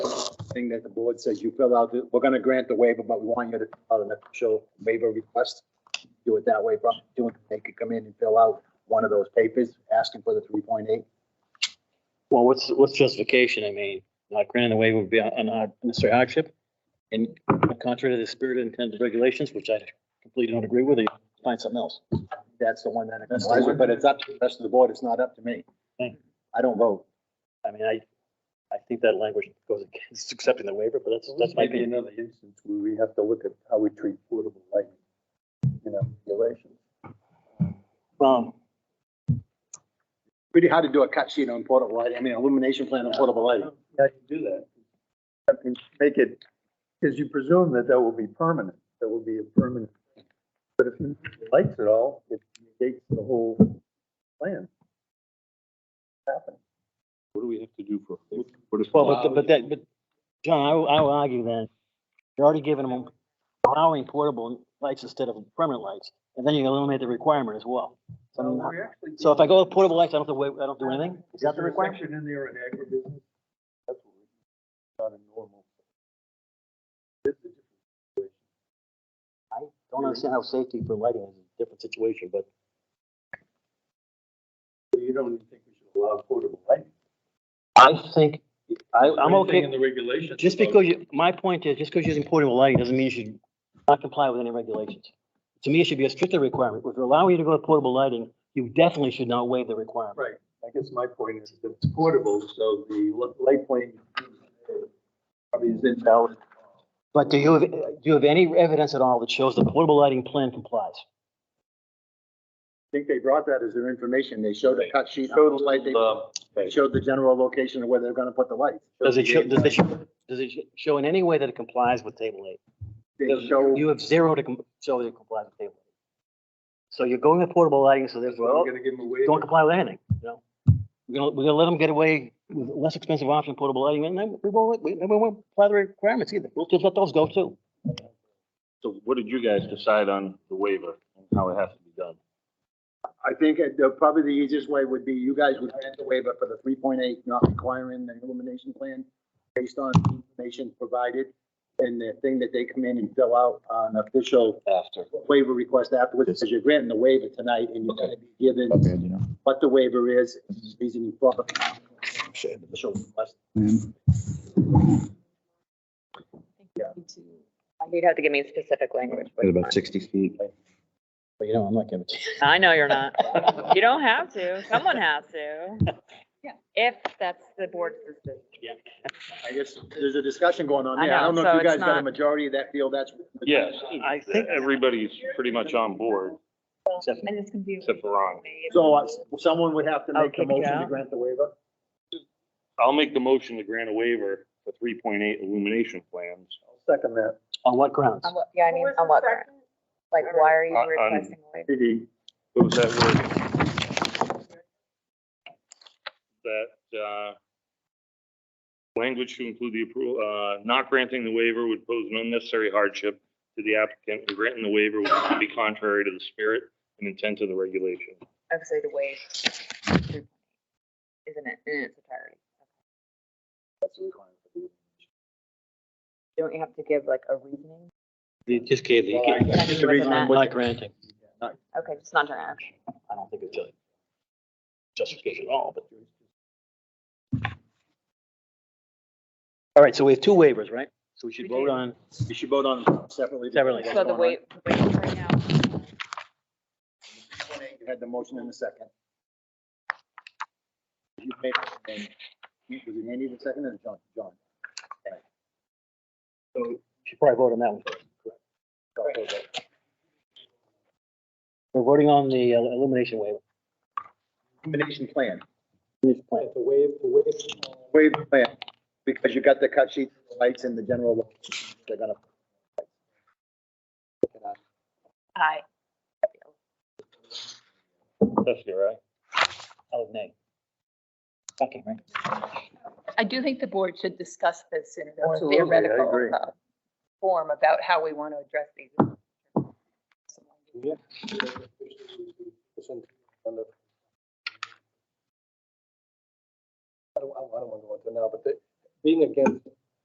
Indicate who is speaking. Speaker 1: thing that the board says you fill out, the- we're gonna grant the waiver, but we want you to fill out an official waiver request. Do it that way, but do it, they could come in and fill out one of those papers asking for the three point eight.
Speaker 2: Well, what's, what's justification? I mean, not granting the waiver would be a- an unnecessary hardship. And contrary to the spirit and intent of regulations, which I completely don't agree with, you find something else.
Speaker 1: That's the one that,
Speaker 2: That's the one.
Speaker 1: but it's up to the rest of the board, it's not up to me.
Speaker 2: Hmm.
Speaker 1: I don't vote.
Speaker 2: I mean, I, I think that language goes against accepting the waiver, but that's, that's my
Speaker 3: Maybe
Speaker 2: opinion.
Speaker 3: another instance where we have to look at how we treat portable lighting, you know, regulations.
Speaker 2: Um,
Speaker 1: Pretty hard to do a cut sheet on portable lighting, I mean, illumination plan on portable lighting.
Speaker 3: How do you do that? I mean, make it, because you presume that that will be permanent, that will be a permanent. But if you lights it all, it negates the whole plan. Happen.
Speaker 4: What do we have to do for? what if-
Speaker 2: Well, but, but that, but, John, I, will- I will argue then, you're already giving them allowing portable lights instead of permanent lights, and then you eliminate the requirement as well. So I'm not- so if I go with portable lights, I don't have to wait, I don't do anything? Is that the requirement?
Speaker 3: in there in agribusiness? That's what we, not a normal. This is
Speaker 2: I don't understand how safety for lighting is a different situation, but
Speaker 3: You don't even think we should allow portable lighting?
Speaker 2: I think, I, I'm
Speaker 3: Anything In
Speaker 2: okay.
Speaker 3: the regulations.
Speaker 2: Just
Speaker 3: about-
Speaker 2: because you, my point is, just because you're using portable lighting doesn't mean you should not comply with any regulations. To me, it should be a stricter requirement. If you're allowing you to go with portable lighting, you definitely should not waive the requirement.
Speaker 3: Right, I guess my point is that it's portable, so the li- light plane probably is invalid.
Speaker 2: But do you have, do you have any evidence at all that shows the portable lighting plan complies?
Speaker 1: I think they brought that as their information, they showed a cut sheet, showed the light, they showed the general location of where they're gonna put the lights.
Speaker 2: Does it show, does it, show- does it show in any way that it complies with table eight?
Speaker 1: They
Speaker 3: Doesn't-
Speaker 1: show,
Speaker 2: You have zero to com- show that it complies with table eight. So you're going with portable lighting, so there's,
Speaker 3: Well, gonna give them away.
Speaker 2: don't comply with anything, you know? We're gonna, we're gonna let them get away with less expensive option, portable lighting, and then we won't, we, then we won't apply the requirements either. We'll just let those go too.
Speaker 4: So what did you guys decide on the waiver and how it has to be done?
Speaker 1: I think it- the- probably the easiest way would be you guys would grant the waiver for the three point eight, not requiring the illumination plan based on information provided and the thing that they come in and fill out on official
Speaker 4: After.
Speaker 1: waiver request afterwards, because you're granting the waiver tonight and you're gonna be given what the waiver is, reason for. Official request.
Speaker 5: You'd have to give me specific language. but-
Speaker 6: about sixty feet.
Speaker 2: But you know, I'm not giving.
Speaker 5: I know you're not. You don't have to. Someone has to. Yeah. If that's the board's decision.
Speaker 1: I guess there's a discussion going on
Speaker 5: I
Speaker 1: there. I don't
Speaker 5: know,
Speaker 1: know if
Speaker 5: so
Speaker 1: you guys
Speaker 5: it's
Speaker 1: got a
Speaker 5: not-
Speaker 1: majority that feel that's.
Speaker 4: Yes,
Speaker 2: I think,
Speaker 4: everybody's pretty much on board,
Speaker 2: except-
Speaker 5: And it's confusing.
Speaker 4: except for Ron.
Speaker 1: So uh, someone would have to
Speaker 5: Oh,
Speaker 1: make the
Speaker 5: kick it
Speaker 1: motion to
Speaker 5: out?
Speaker 1: grant the waiver?
Speaker 4: I'll make the motion to grant a waiver for three point eight illumination plans.
Speaker 3: Second that.
Speaker 2: on what grounds?
Speaker 5: On what- Yeah, I mean, on what, ground? like, why are you
Speaker 4: On- on-
Speaker 5: requesting? a waiver?
Speaker 4: What was that word? That, uh, language to include the approval, uh, not granting the waiver would pose an unnecessary hardship to the applicant, and granting the waiver would be contrary to the spirit and intent of the regulation.
Speaker 5: Obviously, the waive. Isn't it, in its entirety? Don't you have to give like a reasoning?
Speaker 2: They just gave the,
Speaker 5: I think it was in that.
Speaker 2: not granting.
Speaker 5: Okay, just not during action.
Speaker 2: I don't think it's a justification at all, but. All right, so we have two waivers, right? So we should
Speaker 5: We
Speaker 2: vote
Speaker 5: do.
Speaker 2: on,
Speaker 1: You should vote on them separately.
Speaker 2: Separately.
Speaker 5: So the wait, wait right now.
Speaker 1: You had the motion in the second. You made it, and you- Was it Andy the second or John? John.
Speaker 2: so we should probably vote on that one. first.
Speaker 1: Go, go, go.
Speaker 2: We're voting on the uh, illumination waiver.
Speaker 1: Combination plan,
Speaker 2: Illumination plan.
Speaker 1: waive the plan, because you got the cut sheet, the lights and the general, location they're gonna.
Speaker 5: Hi.
Speaker 4: That's your, right?
Speaker 2: Oh, nay. Okay, right.
Speaker 7: I do think the board should discuss this in a
Speaker 3: Absolutely, I
Speaker 7: theoretical
Speaker 3: agree.
Speaker 7: uh, form about how we want to address these.
Speaker 3: I don't, I don't wanna go into it now, but they, being against